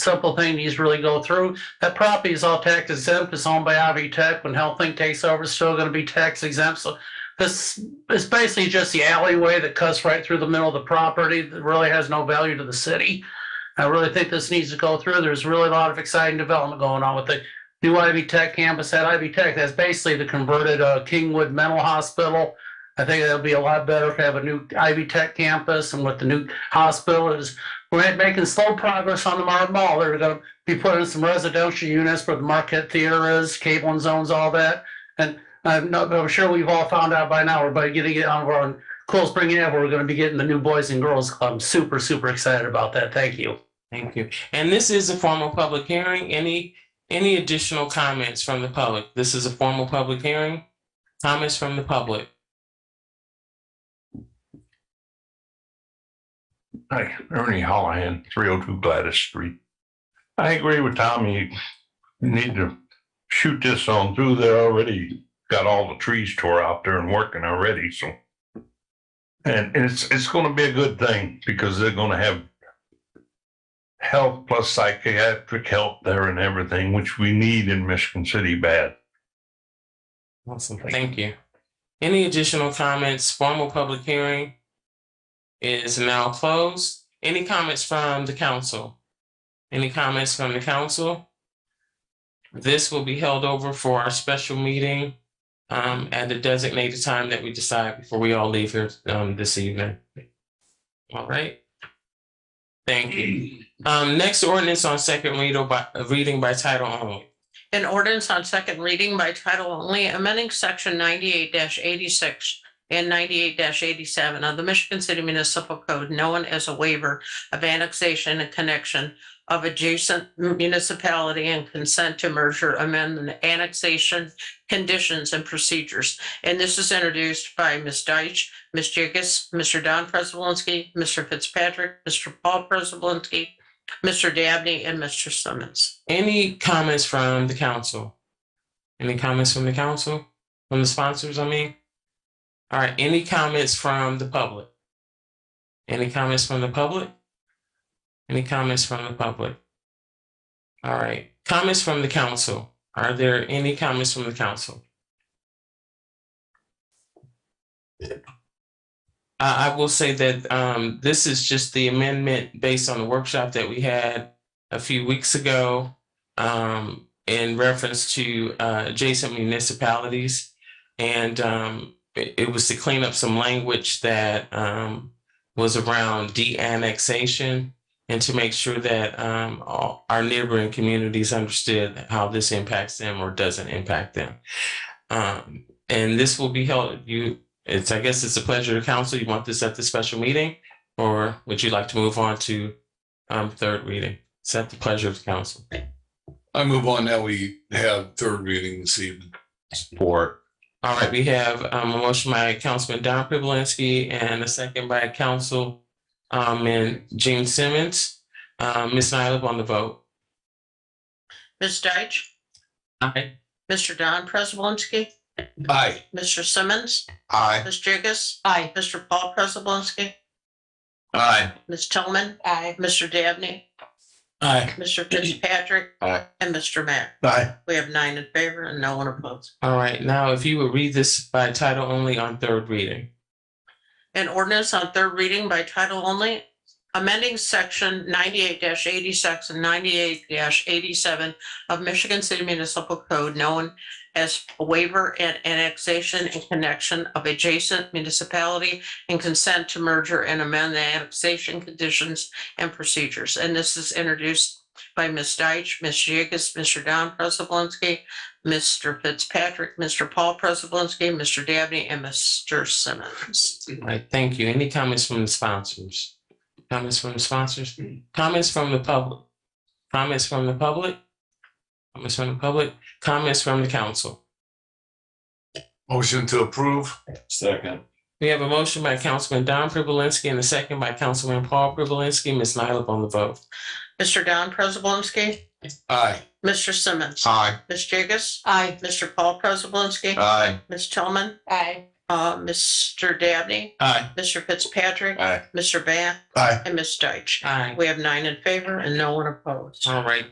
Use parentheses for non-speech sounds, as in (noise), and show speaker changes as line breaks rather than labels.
simple thing needs to really go through. That property is all tax exempt, it's owned by Ivy Tech. When HealthLink takes over, it's still gonna be tax exempt. So this is basically just the alleyway that cuts right through the middle of the property that really has no value to the city. I really think this needs to go through. There's really a lot of exciting development going on with the new Ivy Tech campus at Ivy Tech. That's basically the converted uh, Kingwood Mental Hospital. I think that'll be a lot better if we have a new Ivy Tech campus and with the new hospital is we're making slow progress on the Marv Mall. They're gonna be putting some residential units where the Marquette Theater is, Cable and Zones, all that. And I'm not, I'm sure we've all found out by now, we're about getting it on, we're on Cool Spring Ave, we're gonna be getting the new Boys and Girls Club. I'm super, super excited about that. Thank you.
Thank you. And this is a formal public hearing. Any, any additional comments from the public? This is a formal public hearing. Comments from the public?
Hi, Ernie Hallahan, three oh two Gladys Street. I agree with Tommy. You need to shoot this on through. They already got all the trees tore out there and working already, so. And it's, it's gonna be a good thing because they're gonna have health plus psychiatric help there and everything, which we need in Michigan City bad.
Awesome. Thank you. Any additional comments? Formal public hearing is now closed. Any comments from the council? Any comments from the council? This will be held over for our special meeting um, at the designated time that we decide before we all leave here um, this evening. All right. Thank (clears throat) you. Um, next ordinance on second read by, reading by title only.
An ordinance on second reading by title only, amending section ninety-eight eighty-six and ninety-eight eighty-seven of the Michigan City Municipal Code, known as a waiver of annexation and connection of adjacent municipality and consent to merger amendment annexation conditions and procedures. And this is introduced by Ms. Deitch, Ms. Jacobs, Mr. Don Prespolinski, Mr. Fitzpatrick, Mr. Paul Prespolinski, Mr. Dabney, and Mr. Simmons.
Any comments from the council? Any comments from the council, from the sponsors, I mean? All right, any comments from the public? Any comments from the public? Any comments from the public? All right, comments from the council. Are there any comments from the council? I, I will say that, um, this is just the amendment based on the workshop that we had a few weeks ago um, in reference to uh, adjacent municipalities. And um, it, it was to clean up some language that um, was around de-annexation and to make sure that um, all, our neighboring communities understood how this impacts them or doesn't impact them. Um, and this will be held, you, it's, I guess it's a pleasure to council. You want this at the special meeting? Or would you like to move on to um, third reading? It's at the pleasure of the council.
I move on that we have third reading this evening.
Support.
All right, we have um, a motion by Councilman Don Privilinski and a second by Council um, and Gene Simmons. Um, Ms. Nyla on the vote.
Ms. Deitch,
Aye.
Mr. Don Prespolinski,
Aye.
Mr. Simmons,
Aye.
Ms. Jacobs. Aye. Mr. Paul Prespolinski,
Aye.
Ms. Tillman. Aye. Mr. Dabney,
Aye.
Mr. Fitzpatrick.
Aye.
And Mr. Matt.
Aye.
We have nine in favor and no one opposed.
All right, now if you would read this by title only on third reading.
An ordinance on third reading by title only, amending section ninety-eight eighty-six and ninety-eight eighty-seven of Michigan City Municipal Code known as waiver and annexation and connection of adjacent municipality and consent to merger and amend the annexation conditions and procedures. And this is introduced by Ms. Deitch, Ms. Jagus, Mr. Don Prespolinski, Mr. Fitzpatrick, Mr. Paul Prespolinski, Mr. Dabney, and Mr. Simmons.
All right, thank you. Any comments from the sponsors? Comments from the sponsors? Comments from the public? Comments from the public? Comments from the public? Comments from the council?
Motion to approve. Second.
We have a motion by Councilman Don Privilinski and a second by Councilman Paul Privilinski. Ms. Nyla on the vote.
Mr. Don Prespolinski,
Aye.
Mr. Simmons,
Aye.
Ms. Jagus,
Aye.
Mr. Paul Prespolinski,
Aye.
Ms. Tillman,
Aye.
Uh, Mr. Dabney,
Aye.
Mr. Fitzpatrick,
Aye.
Mr. Bath,
Aye.
and Ms. Deitch.
Aye.
We have nine in favor and no one opposed.
All right.